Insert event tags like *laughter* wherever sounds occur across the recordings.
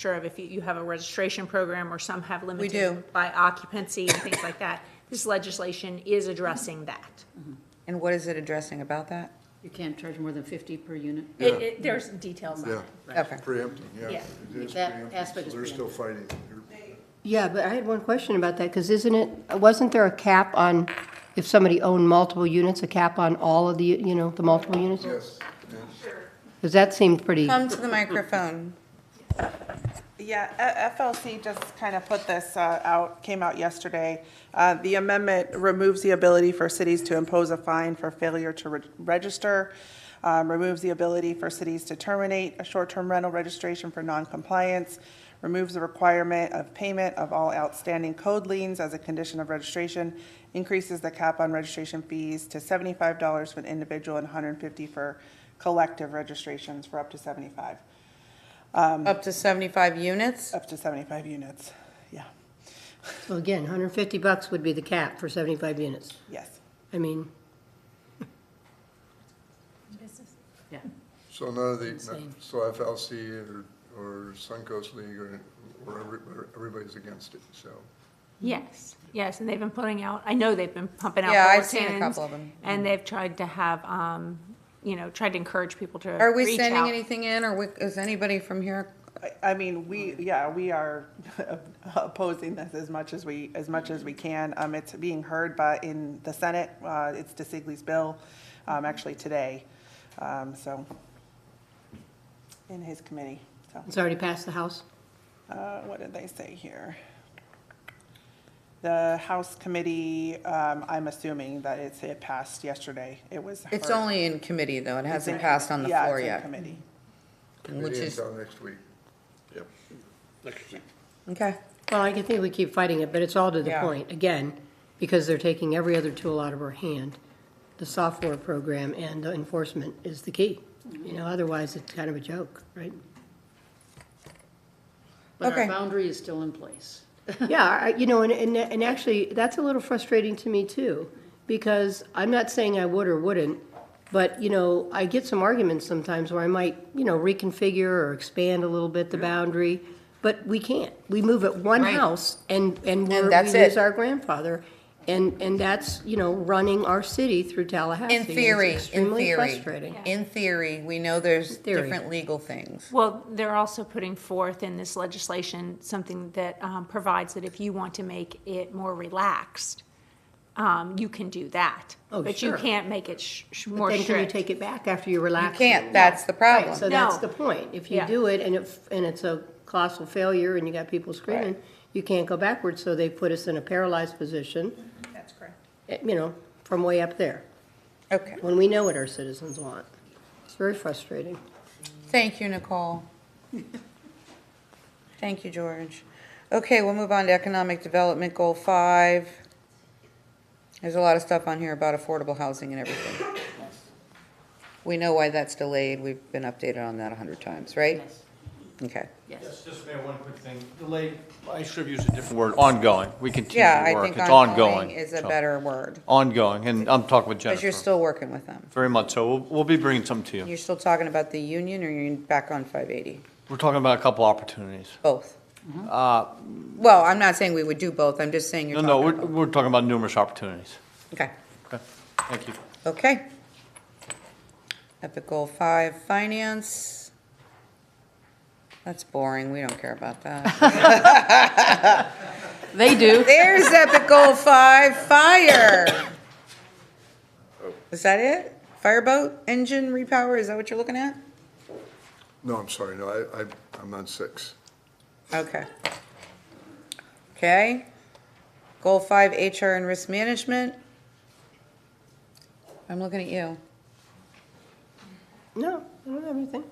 sure of if you, you have a registration program or some have do. limited by occupancy and things like that. This legislation is addressing that. And what is it addressing about that? You can't charge more than 50 per unit? It, it, there's details on Yeah, it. Okay. preempting, yeah. Yeah. It is That preempting, aspect so is They're still fighting. They're- Yeah, but I had one question about that, because isn't it, wasn't there a cap on, if somebody owned multiple units, a cap on all of the, you know, the multiple units? Yes, yes. Because that seemed pretty, Come to the microphone. Yeah, F- FLC just kind of put this uh, out, came out yesterday. Uh, The amendment removes the ability for cities to impose a fine for failure to re- register, um, removes the ability for cities to terminate a short-term rental registration for noncompliance, removes the requirement of payment of all outstanding code liens as a condition of registration, increases the cap on registration fees to $75 for an individual and $150 for collective registrations for up to 75 Um, Up to 75 units? up to 75 units. Yeah, so again, 150 bucks would be the cap for 75 units. yes. I mean, Yeah. So none of the, so FLC or, or Suncoast League or, or every- everybody's against it, so. Yes, yes, and they've been putting out, I know they've been pumping out Yeah, bulletins. I've seen a couple of 'em. And they've tried to have, um, you know, tried to encourage people to Are we reach sending out. anything in, or we- is anybody from here? I, I mean, we, yeah, we are *laughs* opposing this as much as we, as much as we can. Um, it's being heard by, in the Senate, uh, it's DeSigley's bill, um, actually today, um, so, in his committee, so. it's already passed the House. Uh, what did they say here? The House Committee, um, I'm assuming that it's, it passed yesterday. It was. It's heard. only in committee, though. It hasn't passed on the Yeah, floor it's in yet. committee. Which Maybe is- until next week. Okay. Well, I can think we keep fighting it, but it's all to the Yeah. point, again, because they're taking every other tool out of our hand. The software program and the enforcement is the key. You know, otherwise it's kind of a joke, right? But Okay. our boundary is still in place. Yeah, I- you know, and, and, and actually, that's a little frustrating to me too, because I'm not saying I would or wouldn't, but, you know, I get some arguments sometimes where I might, you know, reconfigure or expand a little bit the boundary, but we can't. We move at one Right. house and, and we're, that's we lose it. our grandfather. And, and that's, you know, running our city through Tallahassee. In and it's theory, in extremely theory, frustrating. in theory, we know there's Theory. different legal things. Well, they're also putting forth in this legislation something that um, provides that if you want to make it more relaxed, um, you can do that. Oh, But you sure. can't make it sh- sh- But more then can you strict. take it back after you relax? You it? can't, that's the problem. Right, so that's No. the point. If you Yeah. do it and it, and it's a colossal failure and you got people screaming, you can't go backwards, so they put us in a paralyzed position. That's correct. You know, from way up there, Okay. when we know what our citizens want. It's very frustrating. Thank you, Nicole. Thank you, George. Okay, we'll move on to economic development, goal five. There's a lot of stuff on here about affordable housing and everything. We know why that's delayed. We've been updated on that a hundred times, right? Yes, Okay. yes. Yes, just Mayor, one quick thing. Delay, I should have used a different word, ongoing. We continue Yeah, to I work. think It's ongoing. ongoing is a So, better word, Ongoing, and I'm talking with because you're Jennifer. still working with them. Very much so. We'll, we'll be bringing some to you. You're still talking about the union, or you're back on five eighty? We're talking about a couple opportunities. Both? Well, I'm not saying we would do both. I'm just saying you're Uh, No, talking no, we're, about. we're talking about numerous opportunities. Okay. Okay, thank you. Okay. Epic Goal Five, Finance. That's boring, we don't care about that. They do. There's Epic Goal Five, Fire. Is that it? Fireboat engine repower, is that what you're looking at? No, I'm sorry, no, I, I, I'm on six. Okay. Okay. Goal Five, HR and Risk Management. I'm looking at you. No, I don't have anything.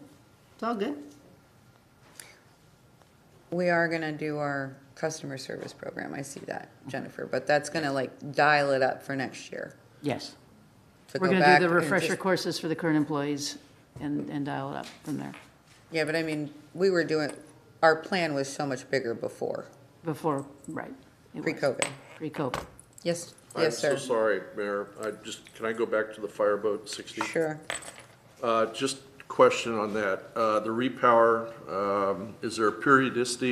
It's all good. We are gonna do our customer service program, I see that, Jennifer, but that's gonna like dial it up for next year. *laughs* Yes. to We're go going to back do the and refresher just- courses for the current employees and, and dial it up from there, Yeah, but I mean, we were doing, our plan was so much bigger before, before, right. it was. pre-COVID. Pre-COVID. Yes, yes, sir. I'm so sorry, Mayor. I just, can I go back to the fireboat 60? Sure. Uh, Just question on that. Uh, The repower, um, is there a periodicity